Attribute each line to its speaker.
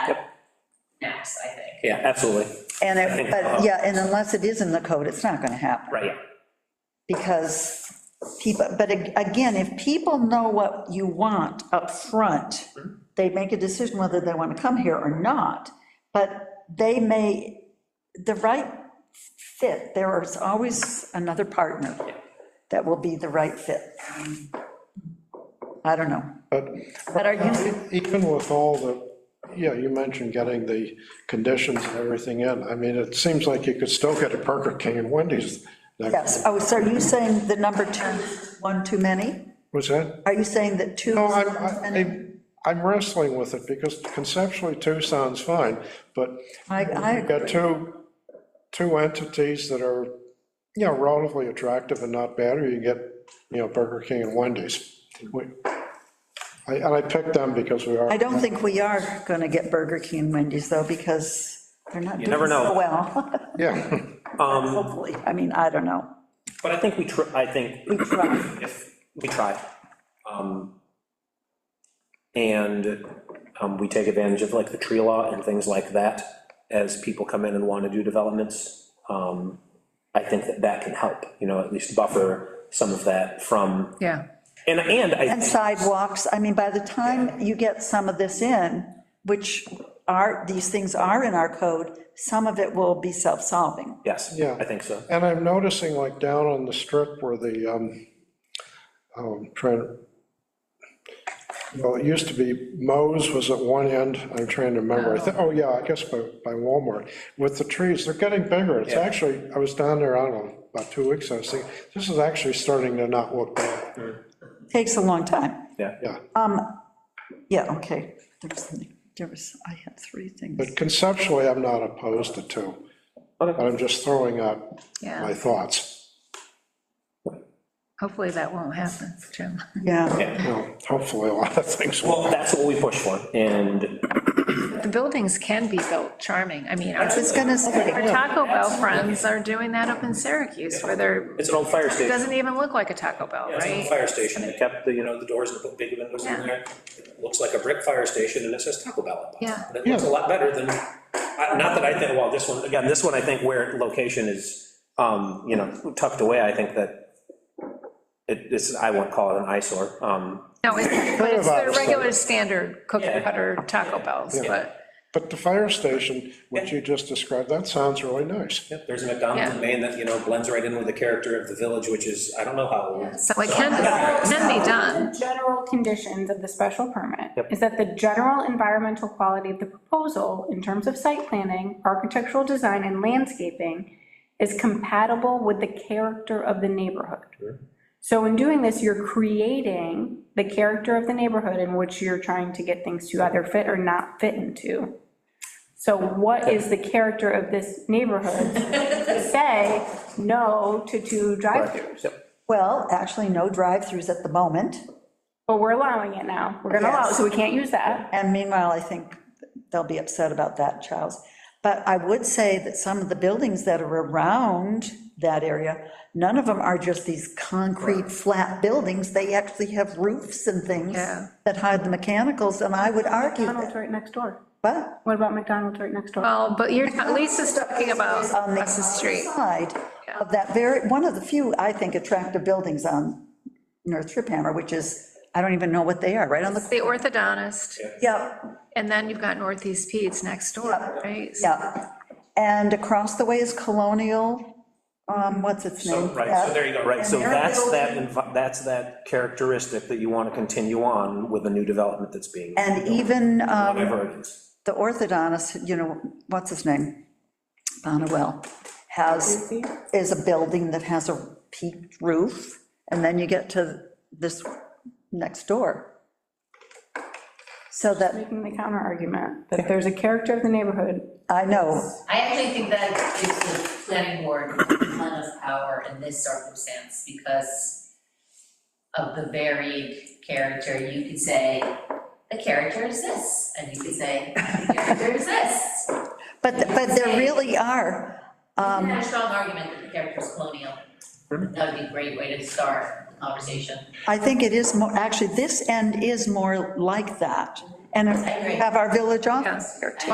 Speaker 1: max, I think.
Speaker 2: Yeah, absolutely,
Speaker 3: And it, but, yeah, and unless it is in the code, it's not gonna happen.
Speaker 2: right.
Speaker 3: Because people, but ag- again, if people know what you want up front, they make a decision whether they want to come here or not, but they may, the right fit, there is always another partner that will be the right fit. I don't know.
Speaker 4: But
Speaker 3: But are you,
Speaker 4: even with all the, yeah, you mentioned getting the conditions and everything in, I mean, it seems like you could still get a Burger King and Wendy's.
Speaker 3: yes, oh, so are you saying the number two, is one too many?
Speaker 4: Was that?
Speaker 3: Are you saying that two?
Speaker 4: No,
Speaker 3: is
Speaker 4: I'm,
Speaker 3: one too
Speaker 4: I-
Speaker 3: many?
Speaker 4: I'm, I'm wrestling with it because conceptually two sounds fine, but
Speaker 3: I, I
Speaker 4: you've got
Speaker 3: agree.
Speaker 4: two, two entities that are, you know, relatively attractive and not bad, or you get, you know, Burger King and Wendy's. We- I- And I picked them because we are.
Speaker 3: I don't think we are going to get Burger King and Wendy's, though, because they're not doing
Speaker 2: never know.
Speaker 3: so well.
Speaker 4: Yeah.
Speaker 3: Hopefully, I mean, I don't know.
Speaker 2: But I think we, tr- I think
Speaker 3: We try.
Speaker 2: if, we try. um, And um, we take advantage of like the tree law and things like that as people come in and want to do developments. Um, I think that that can help, you know, at least buffer some of that from,
Speaker 5: Yeah.
Speaker 2: and, and I
Speaker 3: And
Speaker 2: think
Speaker 3: sidewalks, I mean, by the time you get some of this in, which are, these things are in our code, some of it will be self-solving.
Speaker 2: Yes,
Speaker 4: Yeah.
Speaker 2: I think so.
Speaker 4: And I'm noticing like down on the strip where the, um, oh, I'm trying, to well, it used to be Mo's was at one end, I'm trying to remember, I think, oh yeah, I guess by, by Walmart, with the trees, they're getting bigger, it's actually, I was down there, I don't know, about two weeks, I was thinking, this is actually starting to not look bad,
Speaker 3: Takes a long time.
Speaker 2: Yeah.
Speaker 4: yeah.
Speaker 3: Yeah, okay. There was something, there was, I had three things.
Speaker 4: But conceptually, I'm not opposed to two, but I'm just throwing out
Speaker 5: Yeah.
Speaker 4: my thoughts,
Speaker 5: Hopefully that won't happen, Jim.
Speaker 3: Yeah,
Speaker 4: you know, hopefully a lot of things will.
Speaker 2: Well, that's what we push for, and
Speaker 5: The buildings can be built charming. I mean, our
Speaker 3: I was going to
Speaker 5: our
Speaker 3: say,
Speaker 5: Taco Bell friends are doing that up in Syracuse where they're,
Speaker 2: it's an old fire
Speaker 5: it
Speaker 2: station.
Speaker 5: doesn't even look like a Taco Bell,
Speaker 6: Yeah, It's an old
Speaker 5: right?
Speaker 6: fire station, they kept the, you know, the doors and put big windows in
Speaker 5: Yeah.
Speaker 6: there. It Looks like a brick fire station and it says Taco Bell up on it.
Speaker 5: Yeah.
Speaker 6: And it looks a lot better than, I- not that I think, well, this one,
Speaker 2: Again, this one, I think where location is, um, you know, tucked away, I think that it, it's, I won't call it an eyesore, um,
Speaker 5: No, it's, but it's
Speaker 4: about
Speaker 5: their
Speaker 4: it.
Speaker 5: regular standard cookie
Speaker 2: Yeah.
Speaker 5: cutter Taco Bells, but.
Speaker 4: But the fire station, which you just described, that sounds really nice.
Speaker 6: there's a McDonald's in
Speaker 5: Yeah.
Speaker 6: Maine that, you know, blends right in with the character of the village, which is, I don't know how old.
Speaker 5: So it can, can be done.
Speaker 7: The General conditions of the special permit is that the general environmental quality of the proposal in terms of site planning, architectural design, and landscaping is compatible with the character of the neighborhood. So in doing this, you're creating the character of the neighborhood in which you're trying to get things to either fit or not fit into. So what is the character of this neighborhood to say no to two drive-throughs?
Speaker 3: well, actually, no drive-throughs at the moment.
Speaker 7: But we're allowing it now. We're gonna allow it, so we can't use that.
Speaker 3: And meanwhile, I think they'll be upset about that, Charles. But I would say that some of the buildings that are around that area, none of them are just these concrete, flat buildings. They actually have roofs and things
Speaker 5: Yeah.
Speaker 3: that hide the mechanicals, and I would argue
Speaker 7: McDonald's
Speaker 3: that,
Speaker 7: right next door.
Speaker 3: but
Speaker 7: What about McDonald's right next door?
Speaker 5: Well, but you're, Lisa's talking about
Speaker 3: on the
Speaker 5: across the street.
Speaker 3: side of that very, one of the few, I think, attractive buildings on North Trip Hammer, which is, I don't even know what they are, right on the,
Speaker 5: The orthodontist,
Speaker 3: yeah,
Speaker 5: and then you've got Northeast Pete's next door, right? So
Speaker 3: yeah. And across the way is Colonial, um, what's its name?
Speaker 6: So, right, so there you go, right,
Speaker 2: Right, so
Speaker 3: And they're
Speaker 2: that's that, envi- that's that characteristic that you want to continue on with a new development that's being,
Speaker 3: And even um,
Speaker 2: whatever it is.
Speaker 3: the orthodontist, you know, what's his name? Bonnewell, has, is a building that has a peaked roof, and then you get to this next door. So that,
Speaker 7: Making the counter argument that there's a character of the neighborhood.
Speaker 3: I know,
Speaker 1: I actually think that gives the planning board a ton of power in this circumstance because of the varied character. You could say, the character is this, and you could say, the character is this. You
Speaker 3: but, but there really are,
Speaker 1: can have a strong argument that the character is colonial. That would be a great way to start the conversation.
Speaker 3: I think it is more, actually, this end is more like that. And
Speaker 1: agree.
Speaker 3: have our village office here, too.